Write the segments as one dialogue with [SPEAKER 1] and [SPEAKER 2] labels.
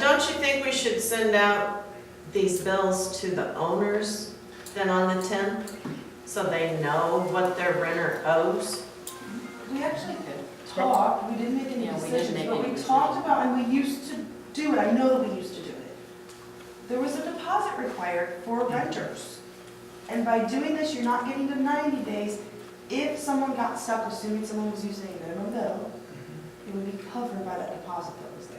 [SPEAKER 1] Don't you think we should send out these bills to the owners then on the tenth? So they know what their renter owes?
[SPEAKER 2] We actually talked, we didn't make any
[SPEAKER 3] Yeah, we didn't
[SPEAKER 2] decisions,
[SPEAKER 3] make
[SPEAKER 2] but
[SPEAKER 3] any
[SPEAKER 2] we
[SPEAKER 3] decisions.
[SPEAKER 2] talked about, and we used to do it, I know that we used to do it. There was a deposit required for renters. And by doing this, you're not getting to ninety days. If someone got stuck, assuming someone was using a minimum bill, it would be covered by that deposit that was there.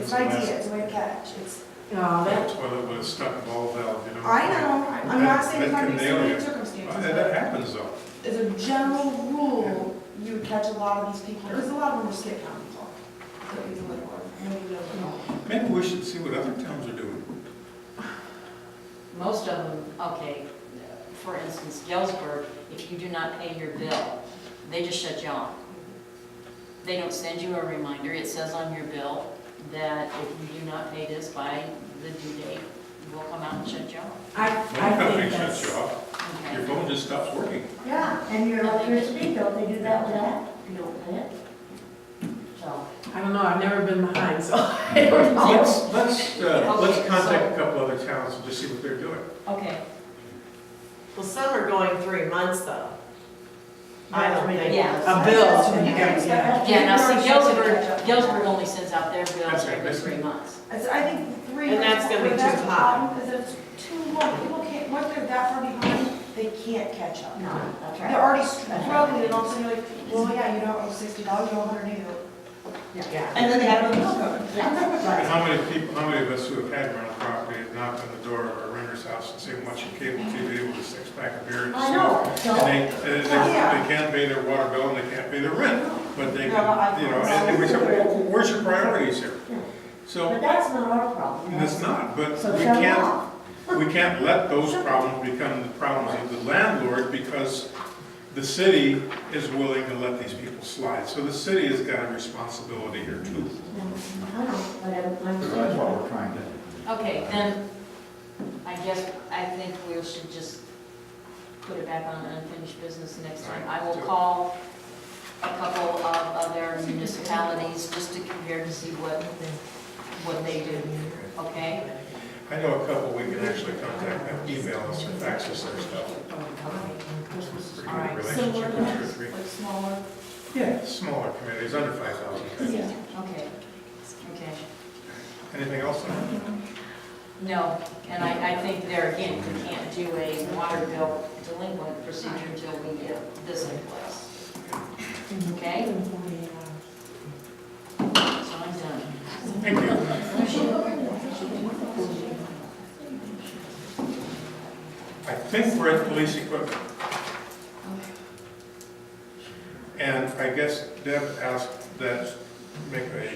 [SPEAKER 2] It's an idea, it's a way to catch, it's,
[SPEAKER 1] No.
[SPEAKER 4] That's why that was stuck ball valve, you know.
[SPEAKER 2] I know, I'm not saying it's not be certain
[SPEAKER 4] Well,
[SPEAKER 2] circumstances,
[SPEAKER 4] That
[SPEAKER 2] but.
[SPEAKER 4] that happens though.
[SPEAKER 2] as a general rule, you would catch a lot of these people, because a lot of them are skip town people. That we live with, and we know them all.
[SPEAKER 4] Maybe we should see what other towns are doing.
[SPEAKER 3] Most of them, okay, for instance, Galesburg, if you do not pay your bill, they just shut you off. They don't send you a reminder, it says on your bill that if you do not pay this by the due date, we'll come out and shut you off.
[SPEAKER 5] I,
[SPEAKER 4] Phone
[SPEAKER 5] I
[SPEAKER 4] company
[SPEAKER 5] think
[SPEAKER 4] shuts you
[SPEAKER 5] that's,
[SPEAKER 4] off, your
[SPEAKER 3] Okay.
[SPEAKER 4] phone just stops working.
[SPEAKER 6] Yeah, and your electricity, don't they do that with that? You don't pay it? So,
[SPEAKER 5] I don't know, I've never been behind, so I don't know.
[SPEAKER 4] Let's, let's, uh, let's
[SPEAKER 3] Okay,
[SPEAKER 4] contact a couple other towns and just see what they're doing.
[SPEAKER 3] Okay,
[SPEAKER 1] Well, some are going three months though. I don't think.
[SPEAKER 3] Yeah.
[SPEAKER 5] A bill to you guys, yeah.
[SPEAKER 3] yeah, now
[SPEAKER 2] Maybe
[SPEAKER 3] see,
[SPEAKER 2] we should
[SPEAKER 3] Galesburg,
[SPEAKER 2] catch up.
[SPEAKER 3] Galesburg only sends out their bills
[SPEAKER 4] That's right,
[SPEAKER 3] every
[SPEAKER 4] that's
[SPEAKER 3] three
[SPEAKER 4] right.
[SPEAKER 3] months.
[SPEAKER 2] I said, I think three.
[SPEAKER 1] And that's gonna be
[SPEAKER 2] that's
[SPEAKER 1] too
[SPEAKER 2] the
[SPEAKER 1] high.
[SPEAKER 2] problem, Is it's too long, people can't, once they're that far behind, they can't catch up.
[SPEAKER 6] no, that's
[SPEAKER 2] They're
[SPEAKER 6] right.
[SPEAKER 2] already struggling, and all of a sudden you're like, well, yeah, you don't owe sixty dollars, you owe a hundred and eighty.
[SPEAKER 5] Yeah.
[SPEAKER 2] And then they have a bill coming.
[SPEAKER 4] And How many people, how many of us who have had rental property have knocked on the door of our renter's house and seen watching cable TV with a six pack of beer and
[SPEAKER 6] I
[SPEAKER 4] stuff?
[SPEAKER 6] know, Oh,
[SPEAKER 4] And
[SPEAKER 6] so,
[SPEAKER 4] they, and they,
[SPEAKER 2] Yeah.
[SPEAKER 4] they can't pay their water bill and they can't pay their rent, but they
[SPEAKER 2] No, I-
[SPEAKER 4] can, you know, and we say, well, where's your priorities here? So,
[SPEAKER 6] but that's not our problem.
[SPEAKER 4] and it's not, but
[SPEAKER 6] So
[SPEAKER 4] we
[SPEAKER 6] shut it
[SPEAKER 4] can't,
[SPEAKER 6] off.
[SPEAKER 4] We can't let those problems become the problems of the landlord because the city is willing to let these people slide. So the city has got a responsibility here too.
[SPEAKER 6] I know, but I'm, I'm
[SPEAKER 7] So
[SPEAKER 6] saying.
[SPEAKER 7] That's what we're trying to,
[SPEAKER 3] Okay, then, I guess, I think we should just put it back on unfinished business next time. I will call a couple of other municipalities just to compare to see what, what they do, okay?
[SPEAKER 4] I know a couple, we can actually contact them, email us or fax us their stuff. Pretty
[SPEAKER 3] All right,
[SPEAKER 4] good
[SPEAKER 3] so
[SPEAKER 4] relationship
[SPEAKER 3] we're
[SPEAKER 4] with
[SPEAKER 3] gonna-
[SPEAKER 4] two or three.
[SPEAKER 2] Like smaller.
[SPEAKER 4] Yeah, smaller communities, under five thousand.
[SPEAKER 6] Yeah.
[SPEAKER 3] Okay, okay.
[SPEAKER 4] Anything else?
[SPEAKER 3] No, and I, I think there again, we can't do a water bill delinquent procedure until we get this in place, okay? So I'm done.
[SPEAKER 4] Thank you. I think we're at police equipment. And I guess Deb asked that make a,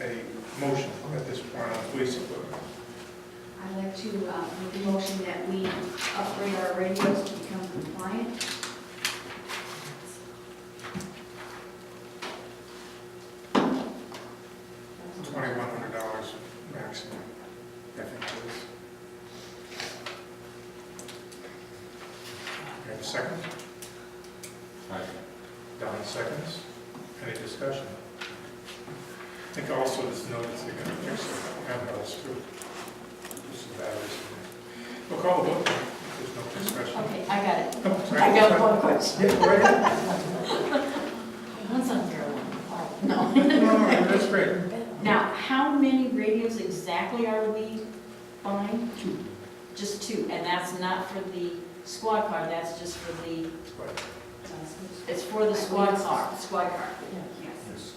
[SPEAKER 4] a motion at this point on police equipment.
[SPEAKER 8] I'd like to uh, make a motion that we upgrade our radios to become compliant.
[SPEAKER 4] Twenty-one hundred dollars maximum, I think it is. You have a second? Don seconds. Any discussion? I think also this notice they're gonna fix the handhelds too. Just the batteries. We'll call the vote. There's no discussion.
[SPEAKER 3] Okay, I got it.
[SPEAKER 4] Oh, sorry.
[SPEAKER 3] I got one question.
[SPEAKER 4] Yeah, go right ahead.
[SPEAKER 3] That's unfair one. No.
[SPEAKER 4] No, no, that's great.
[SPEAKER 3] Now, how many radios exactly are we buying? Two. Just two, and that's not for the squad car, that's just for the, it's for the squad car. Squad car.
[SPEAKER 8] Yes.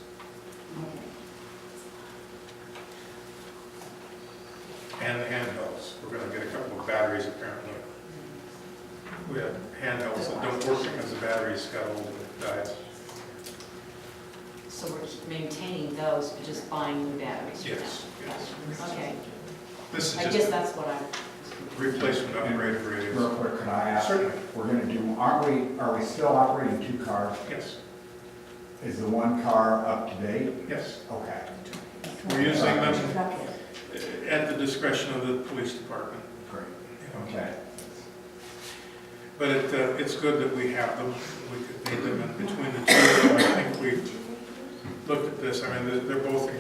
[SPEAKER 4] And the handhelds. We're gonna get a couple of batteries apparently. We have handhelds that don't work because the batteries got old and died.
[SPEAKER 3] So we're maintaining those, but just buying new batteries for now?
[SPEAKER 4] Yes, yes.
[SPEAKER 3] Okay,
[SPEAKER 4] This
[SPEAKER 3] I
[SPEAKER 4] is
[SPEAKER 3] guess
[SPEAKER 4] just
[SPEAKER 3] that's what I,
[SPEAKER 4] replacement upgrade of
[SPEAKER 7] real
[SPEAKER 4] radios.
[SPEAKER 7] quick, can I ask?
[SPEAKER 4] Certainly.
[SPEAKER 7] We're gonna do, aren't we, are we still operating two cars?
[SPEAKER 4] Yes,
[SPEAKER 7] Is the one car up to date?
[SPEAKER 4] yes.
[SPEAKER 7] Okay.
[SPEAKER 4] We're using them
[SPEAKER 6] Truck is.
[SPEAKER 4] at the discretion of the police department.
[SPEAKER 7] Great.
[SPEAKER 4] you know.
[SPEAKER 7] Okay.
[SPEAKER 4] But it, uh, it's good that we have them, we could need them, and between the two, of them, I think we've looked at this, I mean, they're- they're both in